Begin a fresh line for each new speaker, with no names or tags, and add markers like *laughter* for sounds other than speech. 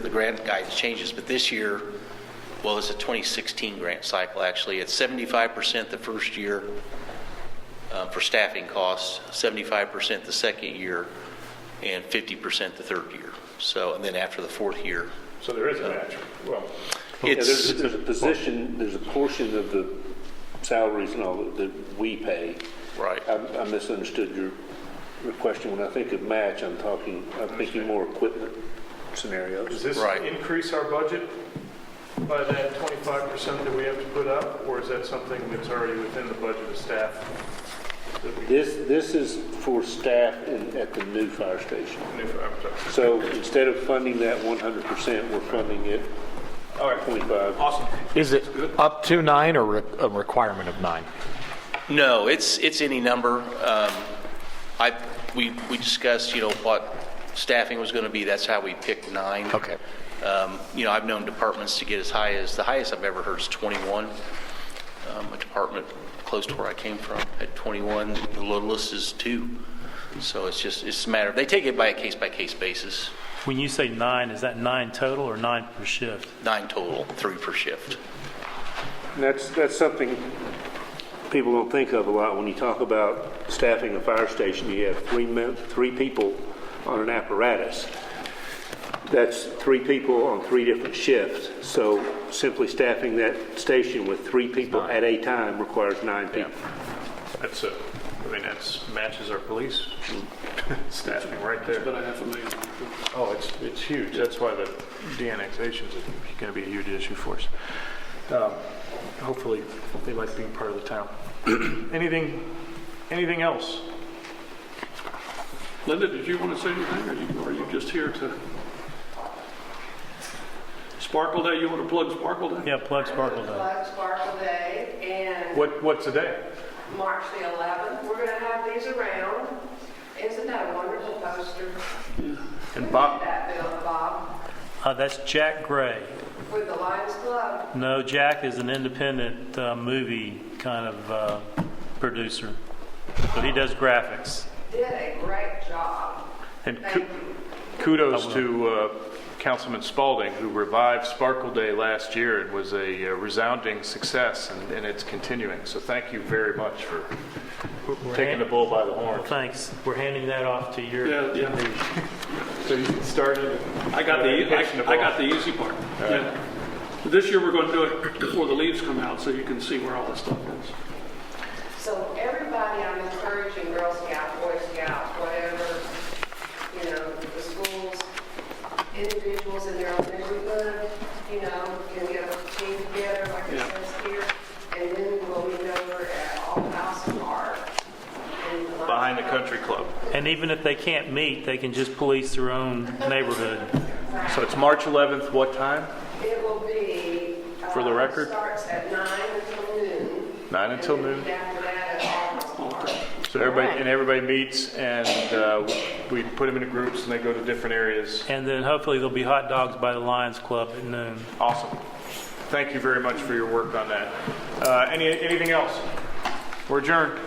grant guidance changes, but this year, well, it's a 2016 grant cycle, actually. It's 75% the first year uh, for staffing costs, 75% the second year, and 50% the third year. So, and then after the fourth year,
So there is a match. Well,
Yeah,
it's,
There's, there's a position, there's a portion of the salaries and all that- that we pay.
Right.
I I misunderstood your, your question. When I think of match, I'm talking, I'm thinking more equipment
does
scenarios.
this
Right.
increase our budget by that 25% that we have to put up? Or is that something that's already within the budget of staff? that we-
This, this is for staff in, at the new fire station.
I'm sorry.
So instead of funding that 100%, we're funding it
All right.
25.
Awesome.
Is it up to nine or re- a requirement of nine?
no, it's, it's any number. Um, I, we, we discussed, you know, what staffing was going to be. That's how we picked nine.
Okay.
Um, You know, I've known departments to get as high as, the highest I've ever heard is 21. Um, A department close to where I came from at 21, the littlest is two. So it's just, it's a matter, they take it by a case-by-case basis,
When you say nine, is that nine total or nine per shift?
nine total, three per shift.
And that's, that's something people don't think of a lot. When you talk about staffing a fire station, you have three men, three people on an apparatus. That's three people on three different shifts. So simply staffing that station with three people at a time requires nine people.
That's a, I mean, that's, matches our police *laughs* staffing right there. But I have a million. Oh, it's, it's huge. That's why the de-annexation is going to be a huge issue for us. Um, Hopefully, they like being part of the town. *clears throat* Anything, anything else?
Linda, did you want to say anything, or you, or you just here to? Sparkle Day, you want to plug Sparkle Day?
Yeah, plug Sparkle Day.
Blood Sparkle Day and
What, what's the day?
March the 11th. We're going to have these around. Isn't that a wonderful poster?
And Bob,
That Bill Bob
Uh, that's Jack Gray.
with the Lions Club.
No, Jack is an independent uh, movie kind of uh, producer, but he does graphics.
Did a great job.
and
Thank
ku-
you.
kudos to uh, Councilman Spalding, who revived Sparkle Day last year. It was a uh, resounding success, and, and it's continuing. So thank you very much for taking the bull by the horn.
Thanks. We're handing that off to your.
Yeah, yeah.
So you can start it.
I got the, e-
Pitching the
I- I got
ball.
the easy part. Yeah. This year, we're going to do it before the leaves come out, so you can see where all this stuff is.
So everybody, I'm encouraging Girl Scout, Boy Scout, whatever, you know, the schools, individuals in their own neighborhood, you know, can get a team together like it
Yeah.
says here. And then we'll meet over at All House Park. and Lions
Behind the
Club.
country club.
And even if they can't meet, they can just police their own neighborhood.
So it's March 11th, what time?
It will be. uh,
For the record?
Starts at nine until noon.
9 until noon.
And then after that, at All House Park.
So everybody, and everybody meets, and uh, we put them into groups, and they go to different areas.
And then hopefully there'll be hot dogs by the Lions Club at noon.
Awesome. Thank you very much for your work on that. Uh, Any Anything else? We're adjourned.